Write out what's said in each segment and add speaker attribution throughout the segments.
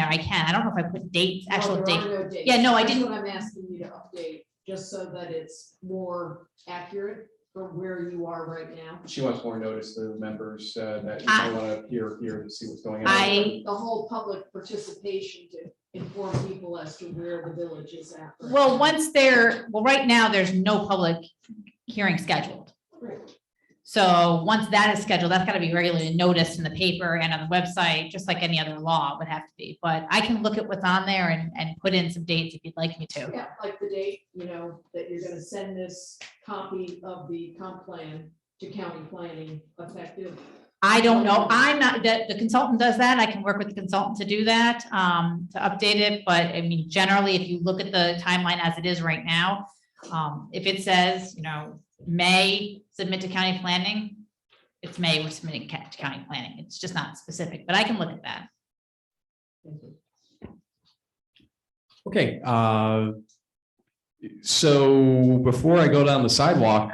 Speaker 1: I can. I don't know if I put dates,
Speaker 2: No,
Speaker 1: actual
Speaker 2: there
Speaker 1: date.
Speaker 2: are no dates.
Speaker 1: Yeah, no, I
Speaker 2: That's
Speaker 1: didn't-
Speaker 2: What I'm asking you to update, just so that it's more accurate from where you are right now.
Speaker 3: She wants more notice to the members uh, that you
Speaker 1: I-
Speaker 3: might want to hear, hear and see what's going on.
Speaker 1: I-
Speaker 2: The whole public participation to inform people as to where the village is at. right
Speaker 1: Well,
Speaker 2: now.
Speaker 1: once there, well, right now, there's no public hearing scheduled.
Speaker 2: Right.
Speaker 1: So once that is scheduled, that's gotta be regularly noticed in the paper and on the website, just like any other law would have to be. But I can look at what's on there and, and put in some dates if you'd like me to.
Speaker 2: Yeah, like the date, you know, that you're gonna send this copy of the comp plan to county planning effective.
Speaker 1: I don't know. I'm not, that the consultant does that. I can work with the consultant to do that, um, to update it. But I mean, generally, if you look at the timeline as it is right now, um, if it says, you know, May submit to county planning, it's May we're submitting ca- to county planning. It's just not specific, but I can look at that.
Speaker 4: Okay, uh, so before I go down the sidewalk,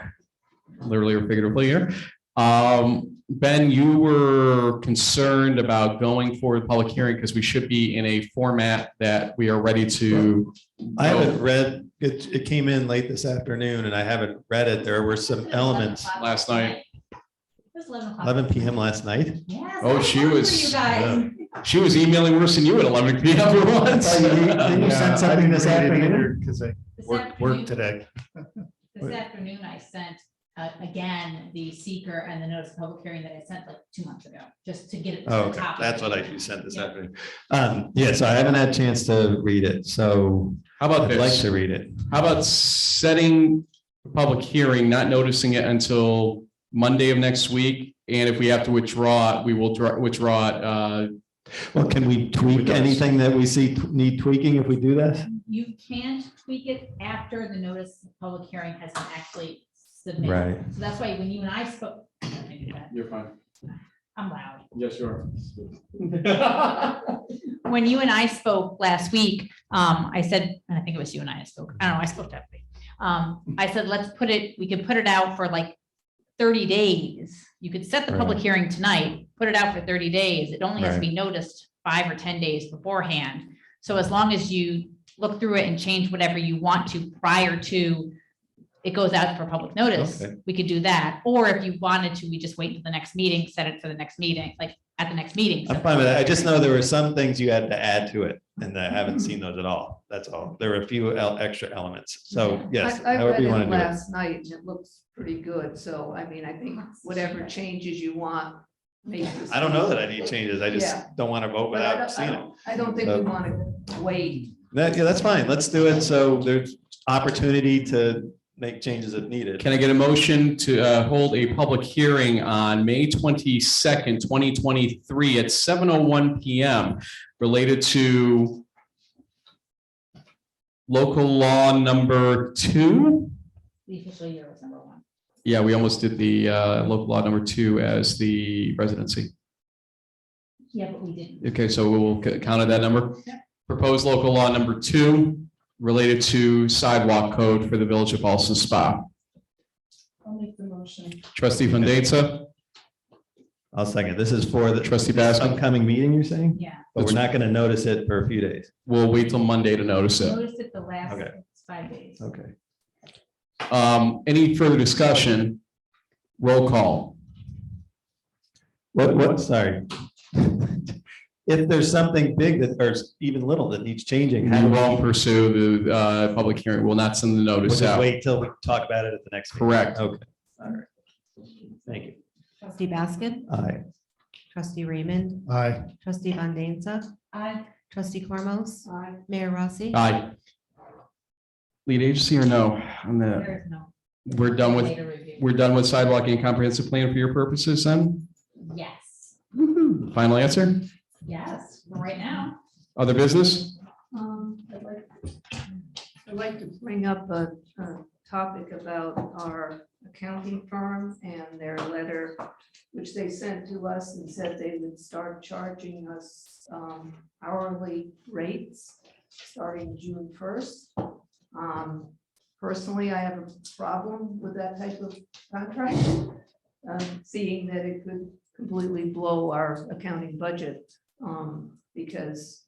Speaker 4: literally or figuratively here, um, Ben, you were concerned about going for the public hearing because we should be in a format that we are ready to.
Speaker 5: I haven't read, it, it came in late this afternoon and I haven't read it. There were some elements,
Speaker 4: Last night.
Speaker 1: It was eleven o'clock.
Speaker 5: eleven PM last night.
Speaker 1: Yes.
Speaker 4: Oh, she was,
Speaker 5: Yeah.
Speaker 4: she was emailing worse than you at eleven P M for once.
Speaker 6: Didn't Oh, you send something this afternoon? Because I
Speaker 1: This
Speaker 6: worked,
Speaker 1: afternoon-
Speaker 6: worked today.
Speaker 1: This afternoon, I sent, uh, again, the seeker and the notice of public hearing that I sent like two months ago, just to get it. to the
Speaker 5: Oh, Okay,
Speaker 1: top of
Speaker 5: that's
Speaker 1: the-
Speaker 5: what I you sent this
Speaker 1: Yeah.
Speaker 5: afternoon. Um, yeah, so I haven't had a chance to read it, so
Speaker 4: How about
Speaker 5: I'd like
Speaker 4: this?
Speaker 5: to read it.
Speaker 4: How about setting a public hearing, not noticing it until Monday of next week? And if we have to withdraw it, we will dra- withdraw it. uh,
Speaker 5: Well, can we tweak
Speaker 4: does?
Speaker 5: anything that we see t- need tweaking if we do this?
Speaker 1: You can tweak it after the notice of public hearing has been actually submitted.
Speaker 5: Right.
Speaker 1: So that's why when you and I spoke, I don't think that-
Speaker 3: You're fine.
Speaker 1: I'm loud.
Speaker 3: Yes, you are.
Speaker 1: When you and I spoke last week, um, I said, and I think it was you and I that spoke, I don't know, I spoke to everybody. Um, I said, let's put it, we could put it out for like thirty days. You could set the public hearing tonight, put it out for thirty days. It only has to be noticed five or ten days beforehand. So as long as you look through it and change whatever you want to prior to it goes out for public notice,
Speaker 5: Okay.
Speaker 1: we could do that. Or if you wanted to, we just wait until the next meeting, set it for the next meeting, like at the next meeting.
Speaker 5: I'm fine with that. I just know there were some things you had to add to it and I haven't seen those at all. That's all. There were a few el- extra elements. So yes,
Speaker 7: I, I
Speaker 5: however
Speaker 7: read
Speaker 5: you want
Speaker 7: it
Speaker 5: to do it.
Speaker 7: last night and it looks pretty good, so I mean, I think whatever changes you want. make this-
Speaker 5: I don't know that I need changes. I
Speaker 7: Yeah.
Speaker 5: just don't want to vote
Speaker 7: But I
Speaker 5: without
Speaker 7: don't- I
Speaker 5: seeing it.
Speaker 7: don't- I don't think we want to wait.
Speaker 5: That, yeah, that's fine. Let's do it. So there's opportunity to make changes if needed.
Speaker 4: Can I get a motion to uh, hold a public hearing on May twenty-second, twenty twenty-three at seven oh one P M related to local law number two?
Speaker 1: The official year was number one.
Speaker 4: Yeah, we almost did the uh, local law number two as the residency.
Speaker 1: Yeah, but we didn't.
Speaker 4: Okay, so we'll c- count it that number. Proposed local law number two related to sidewalk code for the Village of Boston Spa.
Speaker 2: I'll make the motion.
Speaker 4: Trustee Fandesa,
Speaker 5: I'll second. This is for the
Speaker 4: Trustee Baskin?
Speaker 5: upcoming meeting, you're saying?
Speaker 1: Yeah,
Speaker 5: But we're not going to notice it for a few days.
Speaker 4: we'll wait till Monday to notice it.
Speaker 1: notice it the last
Speaker 5: Okay.
Speaker 1: five days.
Speaker 5: Okay.
Speaker 4: Um, any further discussion? Roll call.
Speaker 5: What, what, sorry. If there's something big that, or even little that needs
Speaker 4: We
Speaker 5: changing, how do we-
Speaker 4: won't pursue the, uh, public hearing. We'll not send the
Speaker 5: we'll
Speaker 4: notice
Speaker 5: just
Speaker 4: out.
Speaker 5: wait till we talk about it at the next. meeting.
Speaker 4: Correct.
Speaker 5: Okay. All right. Thank you.
Speaker 8: Trustee Baskin,
Speaker 5: Aye.
Speaker 8: trustee Raymond,
Speaker 6: Aye.
Speaker 8: trustee Van Denza,
Speaker 1: I,
Speaker 8: trustee Cormos,
Speaker 2: Aye.
Speaker 8: Mayor Rossi.
Speaker 4: Aye. Lead agency or no? On the,
Speaker 1: there is no.
Speaker 4: we're done with,
Speaker 1: later review.
Speaker 4: we're done with sidewalk and comprehensive plan for your purposes then?
Speaker 1: Yes,
Speaker 4: Final answer?
Speaker 1: yes, right now.
Speaker 4: Other business?
Speaker 7: Um, I'd like- I'd like to bring up a, a topic about our accounting firm and their letter, which they sent to us and said they would start charging us um, hourly rates starting June first. Um, Personally, I have a problem with that type of contract, um, seeing that it could completely blow our accounting budget um, because